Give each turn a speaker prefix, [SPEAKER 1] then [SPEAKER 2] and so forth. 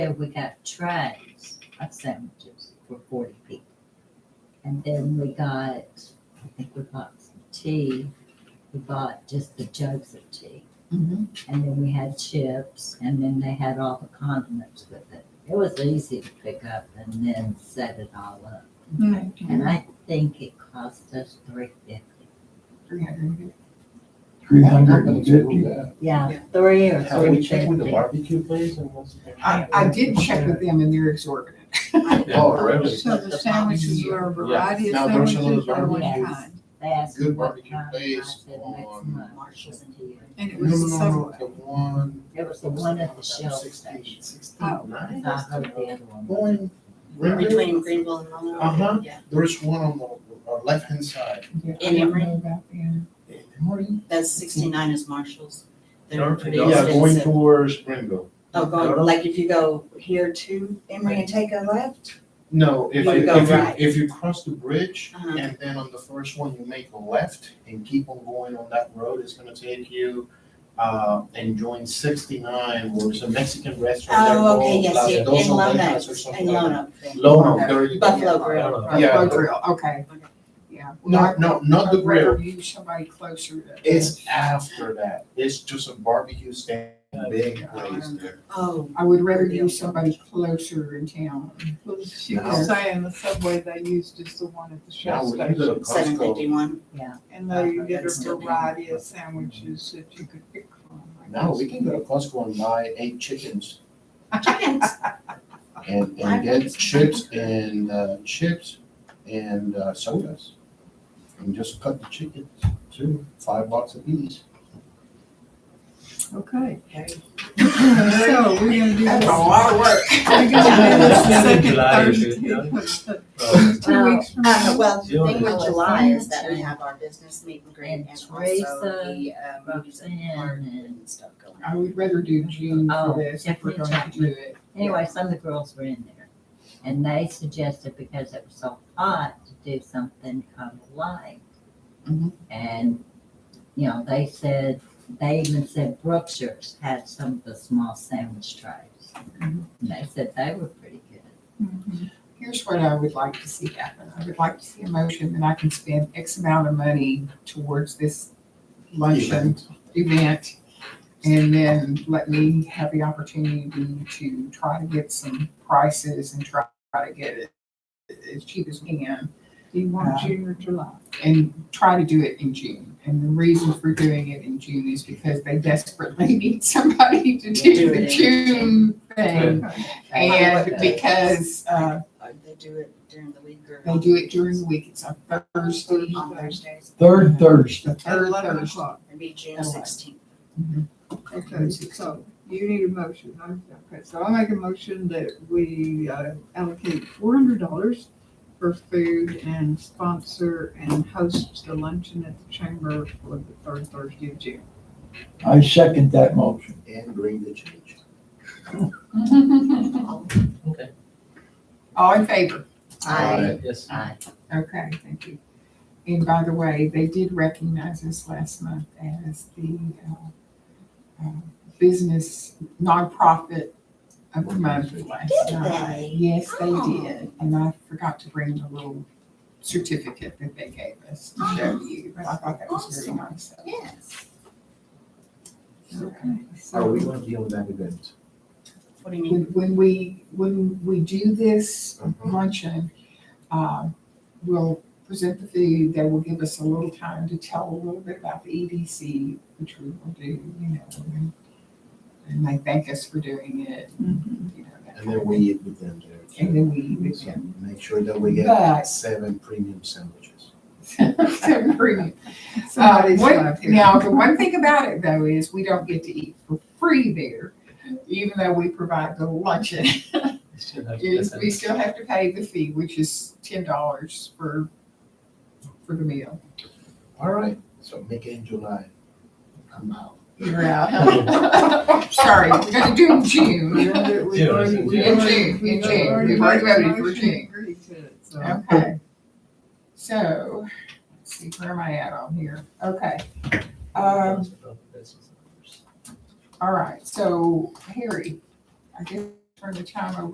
[SPEAKER 1] Then we got trays of sandwiches for forty people. And then we got, I think we bought some tea, we bought just the jugs of tea.
[SPEAKER 2] Mhm.
[SPEAKER 1] And then we had chips, and then they had all the condiments with it. It was easy to pick up and then set it all up. And I think it cost us three fifty.
[SPEAKER 2] Three hundred.
[SPEAKER 3] Three hundred and fifty?
[SPEAKER 1] Yeah,
[SPEAKER 2] Yeah.
[SPEAKER 1] three or
[SPEAKER 4] Have we
[SPEAKER 1] three
[SPEAKER 4] checked with the
[SPEAKER 1] fifty.
[SPEAKER 4] barbecue place and what's?
[SPEAKER 2] I, I did check with them and they're exorbitant.
[SPEAKER 3] Oh, really?
[SPEAKER 5] So the sandwiches were a variety of
[SPEAKER 3] Now, there's some of
[SPEAKER 5] sandwiches
[SPEAKER 3] those
[SPEAKER 5] or one
[SPEAKER 1] barbecues.
[SPEAKER 5] kind.
[SPEAKER 1] They asked me
[SPEAKER 3] Good
[SPEAKER 1] what
[SPEAKER 3] barbecue
[SPEAKER 1] time, and I
[SPEAKER 3] place
[SPEAKER 1] said next
[SPEAKER 3] on
[SPEAKER 1] month.
[SPEAKER 2] Marshall's
[SPEAKER 5] And it
[SPEAKER 3] No, no,
[SPEAKER 5] was
[SPEAKER 3] no,
[SPEAKER 5] some,
[SPEAKER 3] no, the one.
[SPEAKER 1] It was the one at the Shell station.
[SPEAKER 5] Oh.
[SPEAKER 1] And I heard the other one.
[SPEAKER 3] Going, remember,
[SPEAKER 6] Between Greenville and Monroe.
[SPEAKER 3] Uh-huh.
[SPEAKER 6] Yeah.
[SPEAKER 3] there's one on the, uh, left-hand side.
[SPEAKER 6] In Emory?
[SPEAKER 3] In Emory?
[SPEAKER 6] That's sixty-nine is Marshall's. They're
[SPEAKER 4] Dark
[SPEAKER 6] pretty
[SPEAKER 4] Yeah,
[SPEAKER 3] Yeah, going
[SPEAKER 6] expensive.
[SPEAKER 3] towards Springville.
[SPEAKER 6] Oh, going, like if you go here to Emory and take a left,
[SPEAKER 3] No, if
[SPEAKER 6] You
[SPEAKER 3] you,
[SPEAKER 6] go
[SPEAKER 3] if
[SPEAKER 6] right.
[SPEAKER 3] you, if you cross the bridge
[SPEAKER 6] Uh-huh.
[SPEAKER 3] and then on the first one, you make a left and keep on going on that road, it's gonna take you, uh, and join sixty-nine, where it's a Mexican restaurant. they're
[SPEAKER 6] oh, okay,
[SPEAKER 3] called
[SPEAKER 6] yes,
[SPEAKER 3] Las
[SPEAKER 6] yeah, in
[SPEAKER 3] Dos Ovejas or
[SPEAKER 6] Lonox, in
[SPEAKER 3] something like that.
[SPEAKER 6] Lonox.
[SPEAKER 3] Lono, there you go.
[SPEAKER 6] Buffalo Grill.
[SPEAKER 4] Lonox.
[SPEAKER 3] Yeah.
[SPEAKER 2] Buffalo Uh, Grill, okay, yeah.
[SPEAKER 3] No, no, not the
[SPEAKER 2] I'd rather
[SPEAKER 3] grill,
[SPEAKER 2] Use somebody closer to.
[SPEAKER 3] it's after that, it's just a barbecue stand, big place there.
[SPEAKER 6] Oh,
[SPEAKER 2] I would rather use somebody closer in town.
[SPEAKER 5] well, she
[SPEAKER 3] No.
[SPEAKER 5] was saying the subway they used is the one at the
[SPEAKER 3] Now,
[SPEAKER 5] Shell
[SPEAKER 3] we can
[SPEAKER 5] station.
[SPEAKER 3] go to
[SPEAKER 6] seven
[SPEAKER 3] Costco,
[SPEAKER 6] fifty-one.
[SPEAKER 5] And they
[SPEAKER 6] Uh,
[SPEAKER 5] did
[SPEAKER 6] that's
[SPEAKER 5] a
[SPEAKER 6] still being-
[SPEAKER 5] variety of sandwiches that you could pick from. I
[SPEAKER 3] now we
[SPEAKER 5] guess.
[SPEAKER 3] can go to Costco and buy eight chickens
[SPEAKER 6] Chickens.
[SPEAKER 3] and, and get chips and, uh, chips and uh, sodas. And just cut the chickens to five bucks a piece.
[SPEAKER 5] Okay,
[SPEAKER 6] Very
[SPEAKER 5] so we're gonna do
[SPEAKER 2] That's
[SPEAKER 5] this.
[SPEAKER 2] a lot of work.
[SPEAKER 5] We're gonna do this the second
[SPEAKER 4] July is
[SPEAKER 5] Thursday
[SPEAKER 4] it,
[SPEAKER 5] of-
[SPEAKER 2] Oh.
[SPEAKER 5] Two weeks from
[SPEAKER 6] Uh,
[SPEAKER 5] now.
[SPEAKER 6] well, the thing
[SPEAKER 4] Yeah.
[SPEAKER 6] with July is that we have our business meet and greet and
[SPEAKER 1] And
[SPEAKER 6] also
[SPEAKER 1] Teresa,
[SPEAKER 6] the, uh, movies and
[SPEAKER 1] Roxanne,
[SPEAKER 6] art
[SPEAKER 1] and- uh,
[SPEAKER 6] and stuff going on.
[SPEAKER 2] I would rather do June for
[SPEAKER 1] Oh,
[SPEAKER 2] this if we're
[SPEAKER 1] definitely
[SPEAKER 2] going to do it.
[SPEAKER 1] Anyway, some of the girls were in there and they suggested because it was so hot to do something kind of light.
[SPEAKER 2] Mhm.
[SPEAKER 1] And, you know, they said, they even said Brookshire's had some of the small sandwich trays. And they said they were pretty good.
[SPEAKER 5] Mhm.
[SPEAKER 2] Here's what I would like to see happen. I would like to see a motion that I can spend X amount of money towards this luncheon event. And then let me have the opportunity to try to get some prices and try try to get it as cheap as we can.
[SPEAKER 5] Do you want
[SPEAKER 2] Uh,
[SPEAKER 5] June or July?
[SPEAKER 2] and try to do it in June. And the reason for doing it in June is because they desperately need somebody to
[SPEAKER 6] Do
[SPEAKER 2] do
[SPEAKER 6] it
[SPEAKER 2] the
[SPEAKER 6] in
[SPEAKER 2] June thing. And because, uh,
[SPEAKER 6] Uh, They do it during the week or.
[SPEAKER 2] they do it during the week, it's on Thursday,
[SPEAKER 6] On Thursdays,
[SPEAKER 2] Third Thursday. the
[SPEAKER 5] At
[SPEAKER 2] third
[SPEAKER 5] eleven
[SPEAKER 2] Thursday.
[SPEAKER 5] o'clock.
[SPEAKER 6] it'd be June
[SPEAKER 2] Alright.
[SPEAKER 6] sixteenth.
[SPEAKER 5] Okay, so you need a motion. Okay, so I make a motion that we uh, allocate four hundred dollars for food and sponsor and host the luncheon at the chamber for the third Thursday of June.
[SPEAKER 7] I second that motion.
[SPEAKER 3] And bring the change.
[SPEAKER 2] All in favor?
[SPEAKER 6] Aye.
[SPEAKER 4] Yes.
[SPEAKER 2] Okay, thank you. And by the way, they did recognize us last month as the uh, uh, business nonprofit of the month last
[SPEAKER 6] Did
[SPEAKER 2] night.
[SPEAKER 6] they?
[SPEAKER 2] Yes, they
[SPEAKER 6] Oh.
[SPEAKER 2] did. And I forgot to bring the little certificate that they gave us to show
[SPEAKER 6] Oh,
[SPEAKER 2] you. I thought that was very nice. of them.
[SPEAKER 6] Yes.
[SPEAKER 2] Okay,
[SPEAKER 4] Are
[SPEAKER 2] so
[SPEAKER 4] we gonna be on that event?
[SPEAKER 6] What do you mean?
[SPEAKER 2] when, when we, when we do this luncheon, um, we'll present the food, they will give us a little time to tell a little bit about the EDC, which we will do, you know, and- and they thank us for doing it, and, you know. that
[SPEAKER 3] And then we eat with them there. too.
[SPEAKER 2] And then we eat with
[SPEAKER 3] So
[SPEAKER 2] them.
[SPEAKER 3] Make sure that we get
[SPEAKER 2] But-
[SPEAKER 3] seven premium sandwiches.
[SPEAKER 2] So free. Uh,
[SPEAKER 5] Somebody's
[SPEAKER 2] one-
[SPEAKER 5] not here.
[SPEAKER 2] Now, the one thing about it though is we don't get to eat for free there, even though we provide the luncheon. is we still have to pay the fee, which is ten dollars for, for the meal.
[SPEAKER 3] All right, so make it in July. I'm out.
[SPEAKER 2] You're out. Sorry, we're gonna do it in June.
[SPEAKER 5] We've already- we've
[SPEAKER 4] Yeah,
[SPEAKER 5] already- we've already-
[SPEAKER 2] yeah. In June,
[SPEAKER 5] we've
[SPEAKER 2] in June.
[SPEAKER 5] already
[SPEAKER 2] We've already
[SPEAKER 5] made a
[SPEAKER 2] voted for
[SPEAKER 5] motion and
[SPEAKER 2] June.
[SPEAKER 5] agreed to it, so.
[SPEAKER 2] Okay. So, let's see, where am I at on here? Okay. Um, all right, so Harry, I guess turn the time over